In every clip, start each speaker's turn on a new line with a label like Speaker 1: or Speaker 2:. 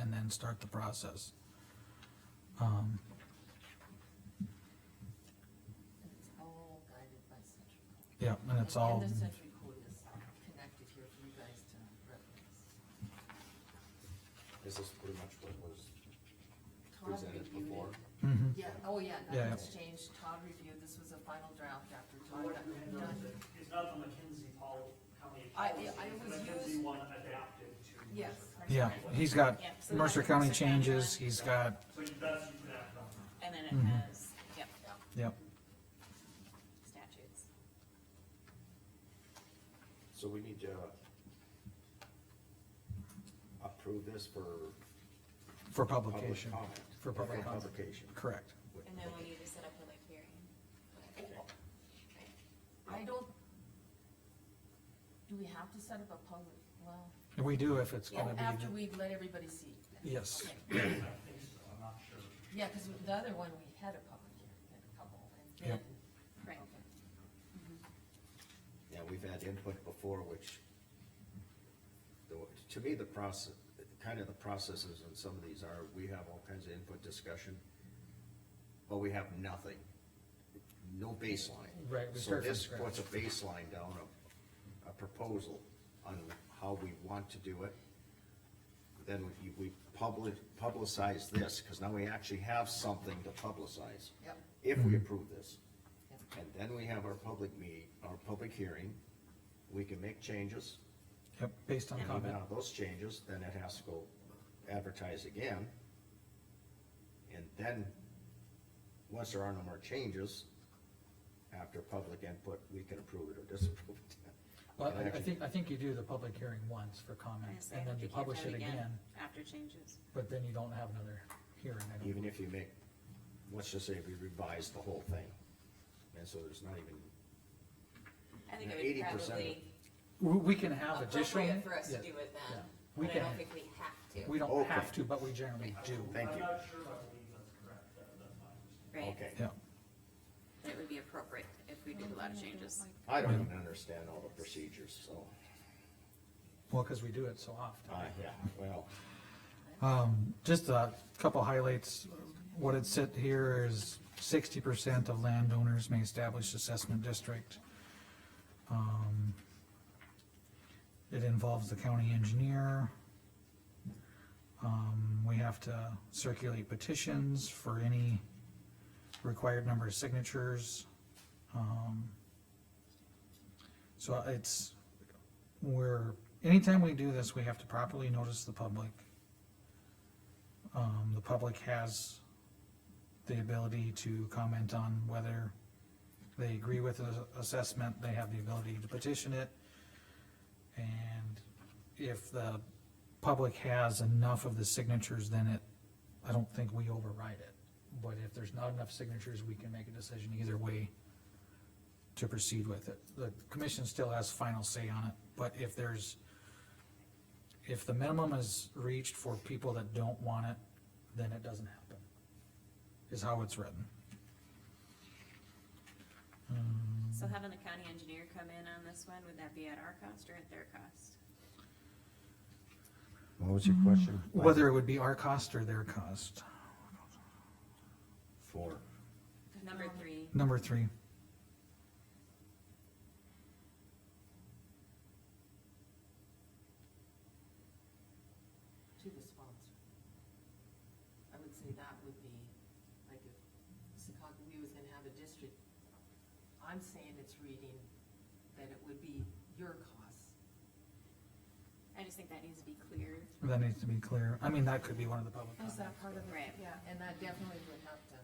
Speaker 1: and start the process. Um,
Speaker 2: It's all guided by central. code.
Speaker 1: Yeah, and it's all,
Speaker 2: And the century code is connected here for you guys to reference.
Speaker 3: Is this pretty much what was
Speaker 2: Todd
Speaker 3: presented
Speaker 2: reviewed it.
Speaker 3: before?
Speaker 1: Mhm.
Speaker 2: Yeah, oh yeah,
Speaker 1: Yeah.
Speaker 2: nothing's changed, Todd reviewed, this was a final draft after Todd got done.
Speaker 4: It's not the McKinsey pol, county
Speaker 2: I-
Speaker 4: policy,
Speaker 2: I
Speaker 4: it's
Speaker 2: was
Speaker 4: the McKinsey
Speaker 2: used-
Speaker 4: one adapted to.
Speaker 2: Yes.
Speaker 1: yeah, he's got
Speaker 5: Yeah, so
Speaker 1: Mercer
Speaker 5: that's-
Speaker 1: County changes, he's got,
Speaker 4: So you- that's, you could act on.
Speaker 5: And then
Speaker 1: Mm-hmm.
Speaker 5: it has, yep,
Speaker 1: yep,
Speaker 5: statutes.
Speaker 3: So we need to approve this for
Speaker 1: for
Speaker 3: public
Speaker 1: publication,
Speaker 3: comment.
Speaker 1: For public comment.
Speaker 3: Publication.
Speaker 1: correct.
Speaker 5: And then we need to set up public hearing.
Speaker 2: I don't, do we have to set up a public, well,
Speaker 1: And we do if it's gonna
Speaker 2: after
Speaker 1: be,
Speaker 2: we let everybody see?
Speaker 1: yes,
Speaker 4: I think so, I'm not sure.
Speaker 2: Yeah, cause the other one, we had a public hearing, had a couple, and then.
Speaker 1: Yep.
Speaker 5: Right.
Speaker 3: Yeah, we've had input before, which, the- to me, the process, kind of the processes in some of these are, we have all kinds of input discussion, but we have nothing, no baseline.
Speaker 1: Right, we
Speaker 3: So
Speaker 1: start from
Speaker 3: this
Speaker 1: scratch.
Speaker 3: puts a baseline down, a, a proposal on how we want to do it. Then we, we public, publicize this, because now we actually have something to publicize.
Speaker 2: Yep.
Speaker 3: If
Speaker 1: Mm-hmm.
Speaker 3: we approve this.
Speaker 2: Yep.
Speaker 3: And then we have our public meet, our public hearing, we can make changes.
Speaker 1: yep, based on
Speaker 3: And even
Speaker 1: comment,
Speaker 3: on those changes, then it has to go advertise again. And then, once there are no more changes, after public input, we can approve it or disapprove it.
Speaker 1: but I- I think, I think you do the public hearing once for comment, and then you publish it again,
Speaker 5: After changes.
Speaker 1: but then you don't have another hearing, I don't,
Speaker 3: Even if you make, let's just say we revise the whole thing, and so there's not even,
Speaker 5: I think it would
Speaker 3: 80% of-
Speaker 5: probably
Speaker 1: we, we can have additional.
Speaker 5: appropriate for us to
Speaker 1: yeah,
Speaker 5: do it
Speaker 1: yeah.
Speaker 5: then,
Speaker 1: We
Speaker 5: but I
Speaker 1: can,
Speaker 5: don't think we have to.
Speaker 1: we don't
Speaker 3: Okay.
Speaker 1: have to, but we generally do,
Speaker 3: Thank
Speaker 4: I'm
Speaker 3: you.
Speaker 4: not sure if I believe that's correct, that, that's my understanding.
Speaker 5: Right,
Speaker 3: okay.
Speaker 1: yeah,
Speaker 5: but it would be appropriate if we did a lot of changes.
Speaker 3: I don't even understand all the procedures, so,
Speaker 1: well, cause we do it so often.
Speaker 3: uh, yeah, well,
Speaker 1: Um, just a couple highlights, what it said here is sixty percent of landowners may establish assessment district. Um, It involves the county engineer. Um, we have to circulate petitions for any required number of signatures. Um, So it's, we're, anytime we do this, we have to properly notice the public. Um, the public has the ability to comment on whether they agree with the assessment, they have the ability to petition it. And if the public has enough of the signatures, then it, I don't think we override it. But if there's not enough signatures, we can make a decision either way to proceed with it. The commission still has final say on it, but if there's if the minimum is reached for people that don't want it, then it doesn't happen, is how it's written.
Speaker 5: So having the county engineer come in on this one, would that be at our cost or at their cost?
Speaker 3: what was your question?
Speaker 1: Whether it would be our cost or their cost.
Speaker 3: Four.
Speaker 5: Number
Speaker 1: Um,
Speaker 5: three,
Speaker 1: Number three,
Speaker 2: to the sponsor. I would say that would be, like, if Secaucus was gonna have a district, I'm saying it's reading that it would be your cost.
Speaker 5: I just think that needs to be clear.
Speaker 1: that needs to be clear. I mean, that could be one of the public comments.
Speaker 2: Is that part of it?
Speaker 5: Right.
Speaker 2: Yeah, and that definitely would have to,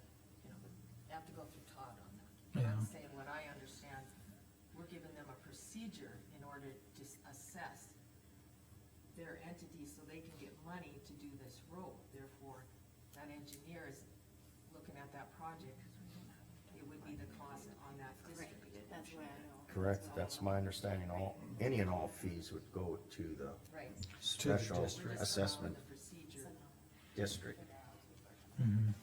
Speaker 2: you know, would have to go through Todd on that.
Speaker 1: Yeah.
Speaker 2: I'm saying what I understand, we're giving them a procedure in order to s- assess their entity so they can get money to do this road. Therefore, that engineer is looking at that project, it would be the cost on that
Speaker 5: Right,
Speaker 2: district.
Speaker 5: that's what I know.
Speaker 3: Correct, that's my understanding, all, any and all fees would go to the
Speaker 2: Right.
Speaker 3: special
Speaker 1: district.
Speaker 2: We're just following
Speaker 3: assessment
Speaker 2: The procedure.
Speaker 3: district.
Speaker 1: Mhm.